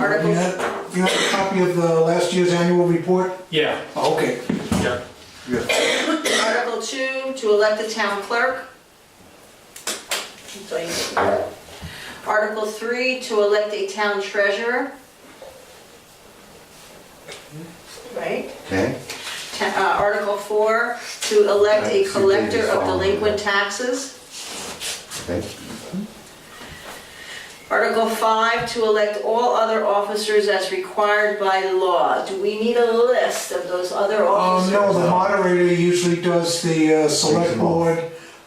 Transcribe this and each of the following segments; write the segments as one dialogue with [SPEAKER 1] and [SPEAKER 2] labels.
[SPEAKER 1] You have, you have a copy of the last year's annual report?
[SPEAKER 2] Yeah,
[SPEAKER 1] Oh, Okay.
[SPEAKER 2] yeah.
[SPEAKER 3] Article two, to elect a town clerk. So you- Article three, to elect a town treasurer. Right?
[SPEAKER 4] Okay,
[SPEAKER 3] Ta- uh, Article four, to elect a
[SPEAKER 4] Right, so you did
[SPEAKER 3] collector of
[SPEAKER 4] follow
[SPEAKER 3] delinquent
[SPEAKER 4] that.
[SPEAKER 3] taxes.
[SPEAKER 4] okay,
[SPEAKER 3] Article five, to elect all other officers as required by law. Do we need a list of those other
[SPEAKER 1] Um,
[SPEAKER 3] officers?
[SPEAKER 1] no, the moderator usually does the uh, select board,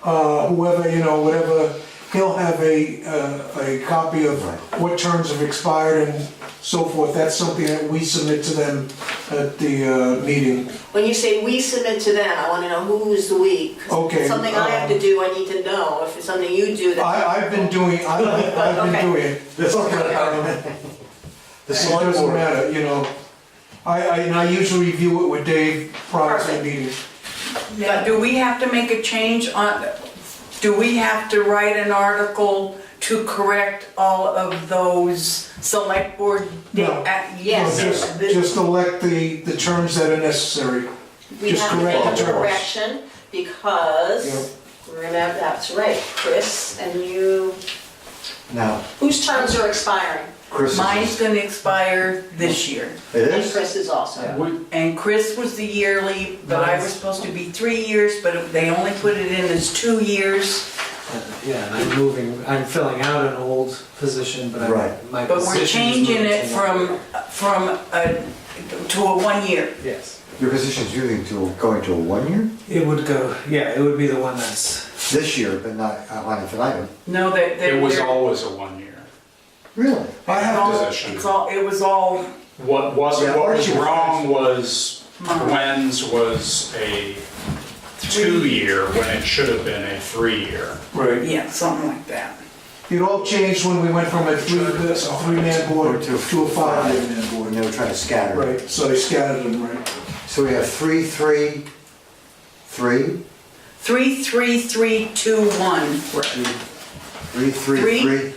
[SPEAKER 1] uh, whoever, you know, whatever. He'll have a, uh, a copy of what terms have expired and so forth. That's something that we submit to them at the uh, meeting.
[SPEAKER 3] When you say we submit to them, I wanna know who's the we. 'cause if
[SPEAKER 1] Okay, um, Uh,
[SPEAKER 3] it's Something I have to do, I need to know. If it's something you do, that.
[SPEAKER 1] I, I've been doing, I- I've been
[SPEAKER 3] Okay.
[SPEAKER 1] doing it.
[SPEAKER 5] This is
[SPEAKER 1] Um,
[SPEAKER 5] the
[SPEAKER 1] It
[SPEAKER 5] select
[SPEAKER 1] doesn't
[SPEAKER 5] board.
[SPEAKER 1] matter, you know. I, I, and I usually review it with Dave prior to the
[SPEAKER 3] Perfect.
[SPEAKER 1] meeting.
[SPEAKER 6] But do we have to make a change on, do we have to write an article to correct all of those select board?
[SPEAKER 1] No.
[SPEAKER 6] uh,
[SPEAKER 1] Well,
[SPEAKER 6] Yes.
[SPEAKER 1] Just, just elect the, the terms that are necessary.
[SPEAKER 3] We
[SPEAKER 1] Just
[SPEAKER 3] have to make
[SPEAKER 1] correct
[SPEAKER 3] a
[SPEAKER 1] the terms.
[SPEAKER 3] correction because, remember, that's right, Chris, and you,
[SPEAKER 4] now,
[SPEAKER 3] whose terms are expiring?
[SPEAKER 4] Chris
[SPEAKER 6] Mine's
[SPEAKER 4] is,
[SPEAKER 6] gonna expire this year.
[SPEAKER 4] it
[SPEAKER 3] And
[SPEAKER 4] is?
[SPEAKER 3] Chris is also.
[SPEAKER 2] We-
[SPEAKER 6] And Chris was the yearly, but I was supposed to be three years, but they only put it in as two years.
[SPEAKER 7] Yeah, and I'm moving, I'm filling out an old position, but
[SPEAKER 4] Right.
[SPEAKER 7] I'm, my
[SPEAKER 6] But we're
[SPEAKER 7] position is
[SPEAKER 6] changing
[SPEAKER 7] moving
[SPEAKER 6] it
[SPEAKER 7] to one
[SPEAKER 6] from,
[SPEAKER 7] year.
[SPEAKER 6] uh, from a, to a one year.
[SPEAKER 7] Yes,
[SPEAKER 4] Your position's moving to, going to a one year?
[SPEAKER 7] it would go, yeah, it would be the one that's,
[SPEAKER 4] This year, but not on an item.
[SPEAKER 6] No, that, that.
[SPEAKER 2] It was always a one-year
[SPEAKER 4] Really?
[SPEAKER 1] I have to,
[SPEAKER 2] position.
[SPEAKER 6] It's all, it was all
[SPEAKER 2] What was,
[SPEAKER 4] Yeah,
[SPEAKER 2] what was
[SPEAKER 4] Archie was
[SPEAKER 2] wrong was
[SPEAKER 6] Mine.
[SPEAKER 2] Gwen's was a two-year when it should have been a three-year.
[SPEAKER 1] right.
[SPEAKER 6] Yeah, something like that.
[SPEAKER 1] It all changed when we went from a three, a three-man board to a five-man
[SPEAKER 4] When
[SPEAKER 1] board.
[SPEAKER 4] they were trying to scatter.
[SPEAKER 1] Right, so they scattered them, right?
[SPEAKER 4] So we have three, three, three,
[SPEAKER 6] Three, three, three, two, one.
[SPEAKER 4] three, three,
[SPEAKER 6] Three.
[SPEAKER 4] three,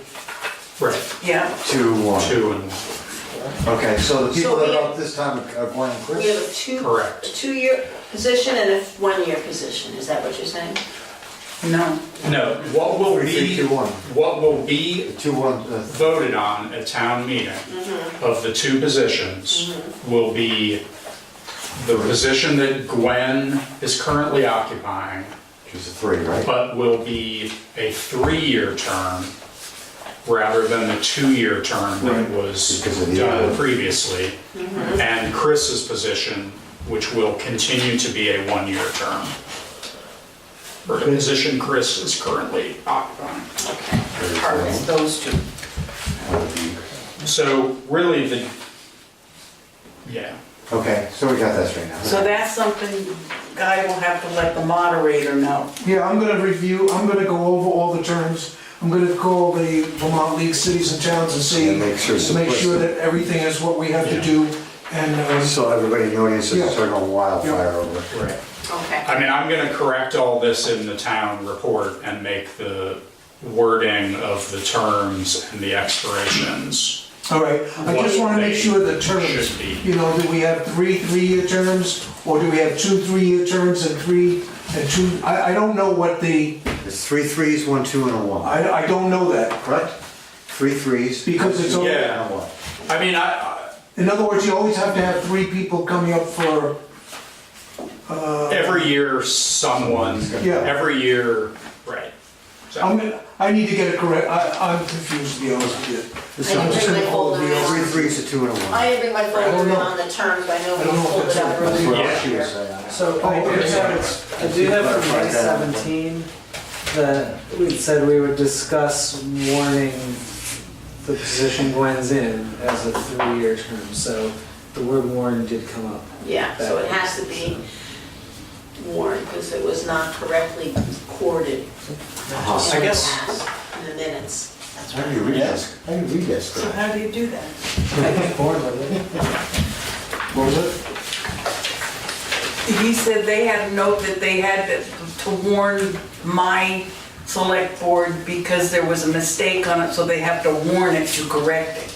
[SPEAKER 2] Right.
[SPEAKER 6] Yeah,
[SPEAKER 4] two, one.
[SPEAKER 2] Two and one.
[SPEAKER 4] Okay, so
[SPEAKER 3] So
[SPEAKER 4] the people that
[SPEAKER 3] we-
[SPEAKER 4] are up this time are Gwen and
[SPEAKER 3] We have
[SPEAKER 4] Chris?
[SPEAKER 3] a two, a
[SPEAKER 2] Correct.
[SPEAKER 3] two-year position and a one-year position, is that what you're saying?
[SPEAKER 6] no.
[SPEAKER 2] No, what will
[SPEAKER 4] Three, three,
[SPEAKER 2] be,
[SPEAKER 4] two, one.
[SPEAKER 2] what will be
[SPEAKER 4] Two, one, uh,
[SPEAKER 2] voted on at town meeting of the two positions will be the position that Gwen is currently occupying,
[SPEAKER 4] she's a three, right?
[SPEAKER 2] but will be a three-year term rather than the two-year term that was
[SPEAKER 4] Because of the-
[SPEAKER 2] done previously. And Chris's position, which will continue to be a one-year term. Or the position Chris is currently occupying.
[SPEAKER 6] It's those two.
[SPEAKER 2] So really the, yeah,
[SPEAKER 4] Okay, so we got that straight now.
[SPEAKER 6] So that's something Guy will have to let the moderator know.
[SPEAKER 1] Yeah, I'm gonna review, I'm gonna go over all the terms. I'm gonna call the Vermont League Cities and Towns and see,
[SPEAKER 4] And make sure it's
[SPEAKER 1] make sure
[SPEAKER 4] simplistic.
[SPEAKER 1] that everything is what we have to
[SPEAKER 2] Yeah.
[SPEAKER 1] do. And, uh,
[SPEAKER 4] So everybody in the audience is starting a wildfire over. it.
[SPEAKER 2] right.
[SPEAKER 3] Okay.
[SPEAKER 2] I mean, I'm gonna correct all this in the town report and make the wording of the terms and the expirations.
[SPEAKER 1] all right, I just wanna make sure the
[SPEAKER 2] Should
[SPEAKER 1] terms,
[SPEAKER 2] be.
[SPEAKER 1] you know, do we have three three-year terms? Or do we have two three-year terms and three, and two, I, I don't know what the,
[SPEAKER 4] It's three threes, one, two, and a one,
[SPEAKER 1] I, I don't know that.
[SPEAKER 4] correct? Three threes.
[SPEAKER 1] Because it's all-
[SPEAKER 4] And a one.
[SPEAKER 2] I mean, I,
[SPEAKER 1] In other words, you always have to have three people coming up for,
[SPEAKER 2] I- every year someone,
[SPEAKER 1] Yeah.
[SPEAKER 2] every year, right. So-
[SPEAKER 1] I'm, gonna- I need to get it correct, I, I'm confused, to be honest with you.
[SPEAKER 4] This
[SPEAKER 3] I
[SPEAKER 4] is-
[SPEAKER 3] didn't bring my folder
[SPEAKER 4] Three
[SPEAKER 3] on.
[SPEAKER 4] threes, a two, and a one.
[SPEAKER 3] I didn't bring my folder
[SPEAKER 1] know.
[SPEAKER 3] on the terms, I know
[SPEAKER 1] I don't know
[SPEAKER 3] we
[SPEAKER 1] if
[SPEAKER 3] pulled
[SPEAKER 1] it's
[SPEAKER 3] it out
[SPEAKER 1] a-
[SPEAKER 4] That's what
[SPEAKER 3] earlier.
[SPEAKER 4] I was saying.
[SPEAKER 7] so
[SPEAKER 1] Oh,
[SPEAKER 7] I do
[SPEAKER 1] okay, so
[SPEAKER 7] have,
[SPEAKER 1] it's-
[SPEAKER 7] I do have from May
[SPEAKER 4] Right down.
[SPEAKER 7] seventeen, that we said we would discuss warning the position Gwen's in as a three-year term, so the word warn did come up.
[SPEAKER 3] Yeah, so it has to be warned because it was not correctly recorded
[SPEAKER 4] Uh-huh.
[SPEAKER 7] I guess-
[SPEAKER 3] in the minutes.
[SPEAKER 4] How do you read this? How do you read this?
[SPEAKER 6] So
[SPEAKER 4] thing?
[SPEAKER 6] how do you do that?
[SPEAKER 7] I get bored with it.
[SPEAKER 1] What was it?
[SPEAKER 6] He said they had a note that they had to- to warn my select board because there was a mistake on it, so they have to warn it to correct it.